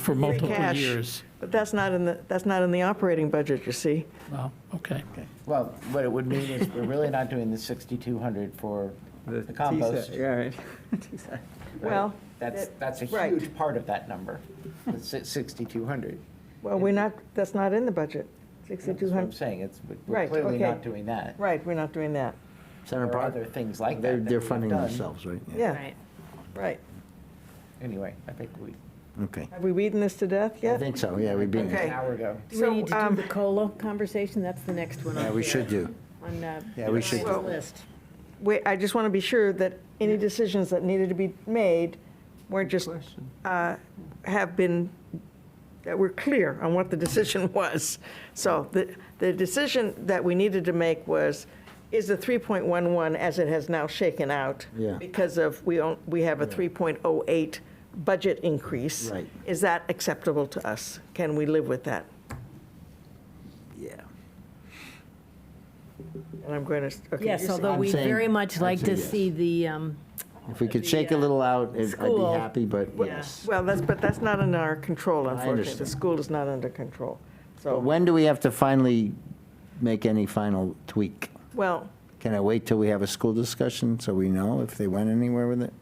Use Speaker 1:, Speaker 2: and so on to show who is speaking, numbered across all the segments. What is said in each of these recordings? Speaker 1: for multiple
Speaker 2: cash.
Speaker 1: years.
Speaker 2: But that's not in the, that's not in the operating budget, you see.
Speaker 1: Wow, okay.
Speaker 3: Well, what it would mean is we're really not doing the 6,200 for the compost.
Speaker 4: Yeah, right.
Speaker 3: right?
Speaker 2: Well,
Speaker 3: That's,
Speaker 2: that-
Speaker 3: that's a
Speaker 2: right.
Speaker 3: huge part of that number, the si- 6,200.
Speaker 2: well, we're not, that's not in the budget,
Speaker 3: That's what I'm
Speaker 2: 6,200.
Speaker 3: saying, it's, we're
Speaker 2: Right,
Speaker 3: clearly
Speaker 2: okay.
Speaker 3: not doing that.
Speaker 2: Right, we're not doing that.
Speaker 3: There
Speaker 4: Center
Speaker 3: are
Speaker 4: Park,
Speaker 3: other things like
Speaker 4: they're,
Speaker 3: that. that
Speaker 4: they're
Speaker 3: we've
Speaker 4: funding
Speaker 3: done.
Speaker 4: themselves, right?
Speaker 2: Yeah,
Speaker 5: Right.
Speaker 2: right.
Speaker 3: Anyway, I think we,
Speaker 4: Okay.
Speaker 2: Have we beaten this to death
Speaker 4: I
Speaker 2: yet?
Speaker 4: think so, yeah, we beat
Speaker 3: an
Speaker 2: Okay.
Speaker 4: it.
Speaker 3: hour ago.
Speaker 5: Do we
Speaker 2: So,
Speaker 5: need to
Speaker 2: um,
Speaker 5: do the COLA conversation? That's the next one on
Speaker 4: Yeah, we
Speaker 5: here,
Speaker 4: should do.
Speaker 5: On uh,
Speaker 4: Yeah, we should do.
Speaker 5: Brian's list.
Speaker 2: Wait, I just want to be sure that any decisions that needed to be made weren't just, uh, have been, that were clear on what the decision was. So the, the decision that we needed to make was, is the 3.11 as it has now shaken out?
Speaker 4: Yeah.
Speaker 2: Because of, we, own- we have a 3.08 budget increase.
Speaker 4: Right.
Speaker 2: Is that acceptable to us? Can we live with that?
Speaker 4: Yeah.
Speaker 2: And I'm going to, okay.
Speaker 5: Yes,
Speaker 2: you're-
Speaker 5: although
Speaker 4: I'm
Speaker 5: we
Speaker 4: saying-
Speaker 5: very much
Speaker 4: I'd
Speaker 5: like
Speaker 4: say
Speaker 5: to
Speaker 4: yes.
Speaker 5: see the, um,
Speaker 4: If we could
Speaker 5: The,
Speaker 4: shake a
Speaker 5: uh,
Speaker 4: little out, it- I'd be
Speaker 5: school.
Speaker 4: happy, but yes.
Speaker 2: Well, that's, but that's not in our control, unfortunately. The
Speaker 4: understand.
Speaker 2: school is not under control.
Speaker 4: But
Speaker 2: So,
Speaker 4: when do we have to finally make any final tweak?
Speaker 2: well,
Speaker 4: Can I wait till we have a school discussion so we know if they went anywhere with it?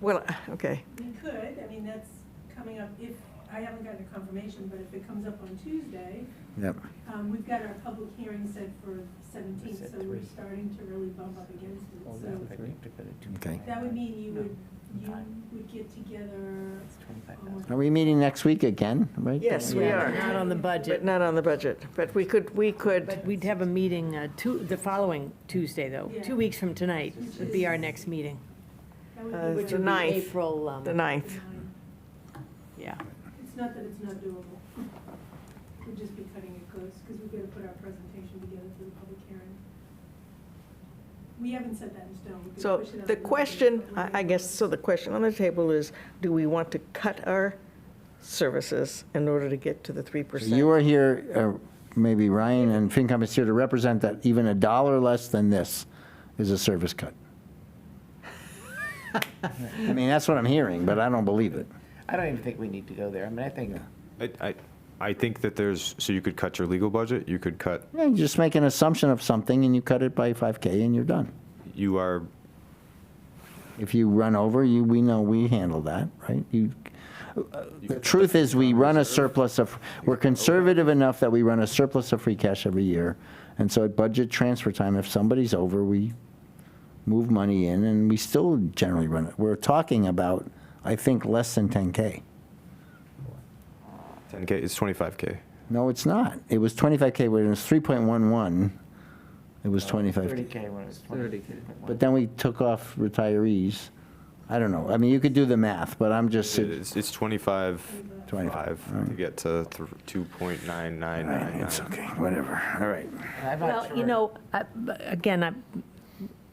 Speaker 2: well, okay.
Speaker 6: We could, I mean, that's coming up, if, I haven't gotten a confirmation, but if it comes up on Tuesday,
Speaker 4: Yep.
Speaker 5: Uh,
Speaker 6: um, we've got our public hearing set for seventeenth,
Speaker 3: Set
Speaker 6: so we're
Speaker 3: three. Oh,
Speaker 6: starting to really bump up against it.
Speaker 3: Hold that, I
Speaker 6: So
Speaker 3: need to put it to-
Speaker 4: Okay.
Speaker 6: that would mean you would, you
Speaker 3: Five.
Speaker 6: would get together
Speaker 3: It's 25,000.
Speaker 6: almost
Speaker 4: Are we meeting next week again, right?
Speaker 2: Yes, we
Speaker 5: yeah,
Speaker 2: are.
Speaker 5: not on the
Speaker 2: But
Speaker 5: budget.
Speaker 2: not on the budget. But we could, we could,
Speaker 5: But we'd have a meeting uh, two, the following Tuesday, though.
Speaker 6: Yeah.
Speaker 5: Two weeks from tonight
Speaker 6: Which
Speaker 5: would be our
Speaker 6: is-
Speaker 5: next meeting.
Speaker 6: that would be
Speaker 2: Uh,
Speaker 6: like
Speaker 5: which
Speaker 2: the
Speaker 5: would be
Speaker 2: ninth.
Speaker 5: April, um,
Speaker 2: the 9th.
Speaker 6: nine.
Speaker 5: yeah.
Speaker 6: It's not that it's not doable. We'd just be cutting it close, because we've got to put our presentation together for the public hearing. We haven't set that in stone. We could
Speaker 2: So
Speaker 6: push it
Speaker 2: the
Speaker 6: out a little
Speaker 2: question,
Speaker 6: bit, but we're
Speaker 2: I I guess, so the question on the table is, do we want to cut our services in order to get to the 3%?
Speaker 4: So You are here, uh, maybe Ryan and FinCom is here to represent that even a dollar less than this is a service cut. I mean, that's what I'm hearing, but I don't believe it.
Speaker 3: I don't even think we need to go there. I mean, I think,
Speaker 7: I, I, I think that there's, so you could cut your legal budget, you could cut,
Speaker 4: Yeah, you just make an assumption of something and you cut it by 5K and you're done.
Speaker 7: you are,
Speaker 4: If you run over, you, we know we handle that, right? You, uh, the truth is, we run a surplus of, we're conservative enough that we run a surplus of free cash every year. And so at budget transfer time, if somebody's over, we move money in and we still generally run it. We're talking about, I think, less than 10K.
Speaker 7: 10K, it's 25K.
Speaker 4: No, it's not. It was 25K, when it was 3.11, it was 25K.
Speaker 3: 30K when it was 20.
Speaker 4: But then we took off retirees. I don't know. I mean, you could do the math, but I'm just,
Speaker 7: It's, it's 25,
Speaker 4: 25, all
Speaker 7: five to
Speaker 4: right.
Speaker 7: get to thr- 2.9999.
Speaker 4: it's okay, whatever. All right.
Speaker 3: And I'm not
Speaker 5: Well, you
Speaker 3: sure-
Speaker 5: know, I- but again, I,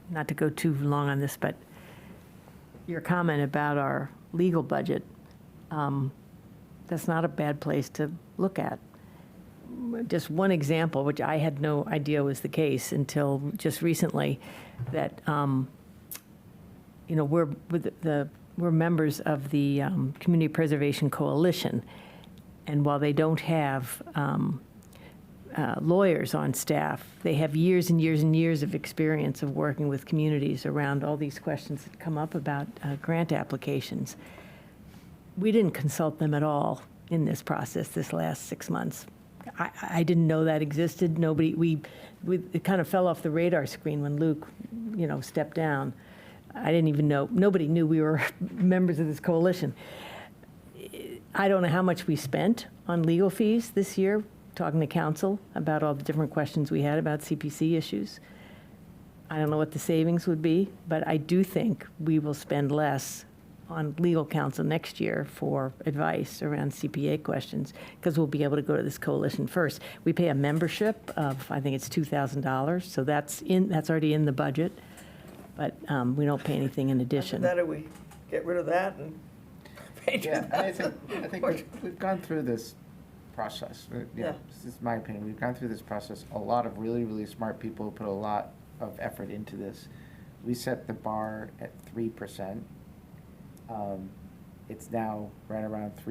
Speaker 5: not to go too long on this, but your comment about our legal budget, um, that's not a bad place to look at. Just one example, which I had no idea was the case until just recently, that, um, you know, we're, with the, we're members of the um, Community Preservation Coalition. And while they don't have um, uh, lawyers on staff. They have years and years and years of experience of working with communities around all these questions that come up about uh, grant applications. We didn't consult them at all in this process this last six months. I, I didn't know that existed. Nobody, we, we, it kind of fell off the radar screen when Luke, you know, stepped down. I didn't even know, nobody knew we were members of this coalition. I don't know how much we spent on legal fees this year, talking to council about all the different questions we had about CPC issues. I don't know what the savings would be, but I do think we will spend less on legal counsel next year for advice around CPA questions, because we'll be able to go to this coalition first. We pay a membership of, I think it's $2,000, so that's in, that's already in the budget, but um, we don't pay anything in addition.
Speaker 2: That, or we get rid of that and
Speaker 3: Yeah, and I think, I think we've- we've gone through this process, uh,
Speaker 2: Yeah.
Speaker 3: yeah, this is my opinion, we've gone through this process, a lot of really, really smart people put a lot of effort into this. We set the bar at three percent. It's Um, now right around three